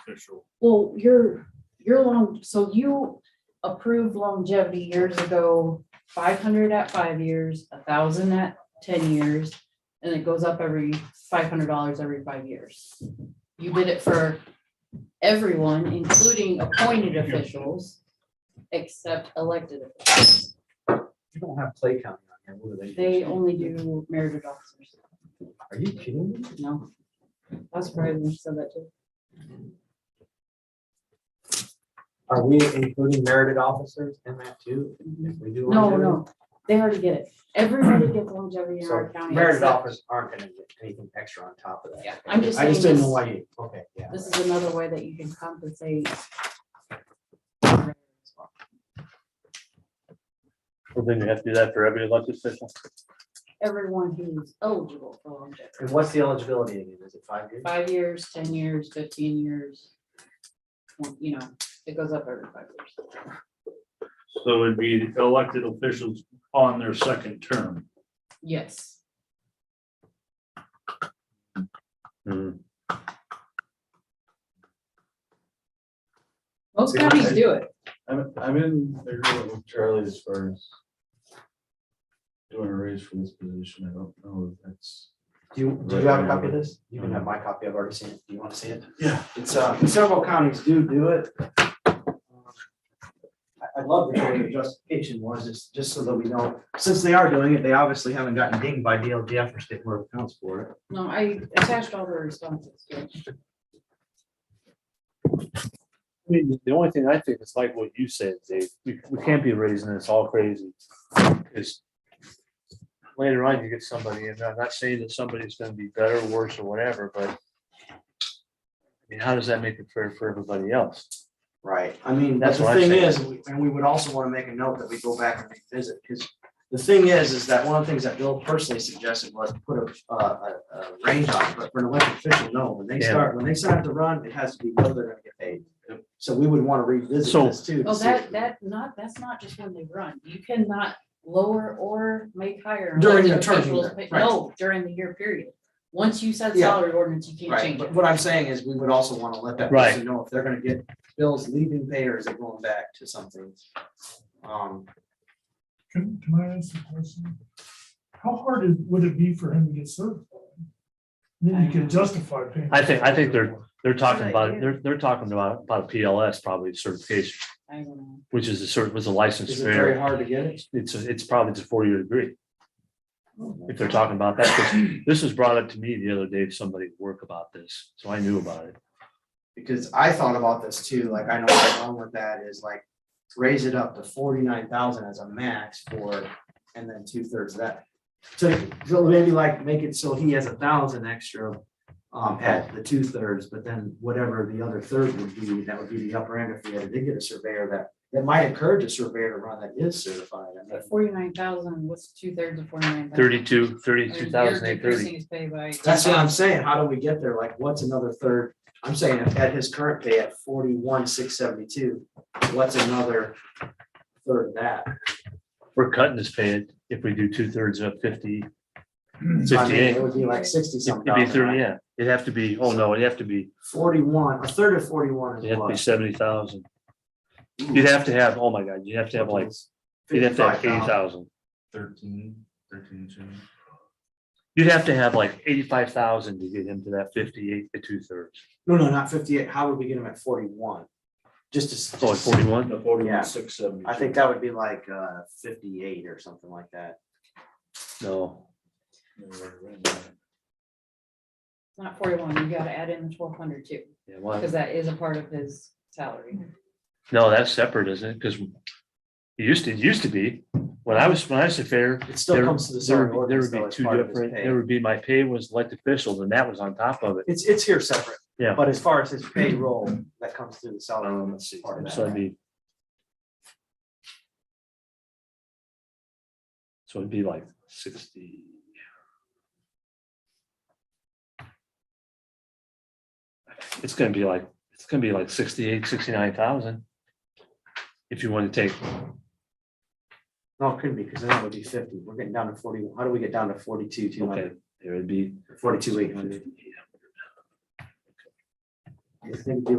official. Well, your, your long, so you approved longevity years ago, five hundred at five years, a thousand at ten years. And it goes up every five hundred dollars every five years. You did it for everyone, including appointed officials, except elected officials. You don't have Clay County on here, what do they? do? They only do merited officers, Are you kidding me? no. That's probably when you said that too. Are we including merited officers in that too? If we do. No, longevity? no, they already get it. Everybody gets longevity in our So county. merited except- officers aren't gonna get anything extra on top of that. Yeah, I'm just I just saying didn't know this- why you, okay, yeah. This is another way that you can compensate. Well, then you have to do that for every elected official. Everyone who's eligible for longevity, And what's the eligibility again? Is it five years? five years, ten years, fifteen years. Well, You know, it goes up every five years. So it'd be elected officials on their second term. Yes, most counties do it. I'm, I'm in agreement with Charlie as far as doing a raise for this position. I don't know if that's. Do you, do you have a copy of this? You can have my copy. I've already seen it. Do you wanna see it? Yeah. It's, uh, several counties do do it. Um, I, I love the way the justification was, it's just so that we know, since they are doing it, they obviously haven't gotten dinged by DLGF or state board of accounts for it. No, I attached all the responses to it. I mean, the only thing I think is like what you said, Dave, we, we can't be raising this all crazy. Cause later on, you get somebody, and I'm not saying that somebody's gonna be better, worse, or whatever, but I mean, how does that make it fair for everybody else? Right, I mean, that's That's the what I'm thing saying. is, we- and we would also want to make a note that we go back and revisit, because the thing is, is that one of the things that Bill personally suggested was put a, a, a a range on, it, but for an elected official, no, when they Yeah. start, when they start to run, it has to be what they're gonna get paid. So we would want to revisit So- this too. to Well, see if- Oh, that, that not, that's not just when they run. You cannot lower or make higher. During the elected term, officials' either, pay- right. No, during the year period. Once you set Yeah. salary ordinance, you can't Right, change it. but what I'm saying is, we would also want to let that Right. person know if they're gonna get bills leaving pay or is it going back to something. Um, Can, can I ask a question? How hard is- would it be for him to get certified? Then you can justify paying. I think- I think They're talking about, they're, they're talking about, about a PLS probably certification, I don't know. which is a cert, was a license. is it fair. very hard to get it? It's, it's probably it's a four-year degree. Oh If they're talking about that, 'cause this was brought up to me the other day, somebody at work about this, so I knew about it. because I thought about this too, like I know what's wrong with that is like raise it up to forty-nine thousand as a max for, and then two-thirds of that. So, so maybe like make it so he has a thousand extra um at the two-thirds, but then whatever the other third would be, that would be the upper end if we had, did get a surveyor that that might encourage a surveyor to run that is certified. I mean, But forty-nine thousand, what's two thirds of forty-nine? Thirty-two, thirty-two thousand eight thirty. His pay by. That's what I'm saying. How do we get there? Like, what's another third? I'm saying if at his current pay at forty-one, six seventy-two, what's another third of that? We're cutting his pay if we do two-thirds of fifty. So I mean, Fifty-eight, It would be like sixty it'd something. be thirty, yeah, it'd have to be, oh no, it'd have to be, Forty-one, a third of forty-one it'd is have to be what? seventy thousand. You'd have to have, oh my God, you'd have to have like, you'd have to have eighty 55,000. thousand. Thirteen, thirteen, two. You'd have to have like eighty-five thousand to get him to that fifty-eight to two-thirds. No, no, not fifty-eight. How would we get him at forty-one? Just to. So like just- forty-one, The forty-one, Yeah. six seventy. I think that would be like uh fifty-eight or something like that. no, Not forty-one, you gotta add in the twelve hundred too, yeah, why? because that is a part of his salary. No, that's separate, isn't it? Because it used to, it used to be, when I was, when I was a fair, It still there comes to the there salary would be- there ordinance would though be as two part of his different, there pay. would be my pay was elected officials and that was on top of it. It's, it's here separate. Yeah. But as far as his payroll, that comes through the salary Um, ordinance. part of So it'd that. be. So it'd be like sixty. It's gonna be like, it's gonna be like sixty-eight, sixty-nine thousand. If you want to take No, it couldn't be, because then it would be fifty. We're getting down to forty. How do we get down to forty-two, two Okay, hundred, it would be. forty-two, eight hundred? I think it'd be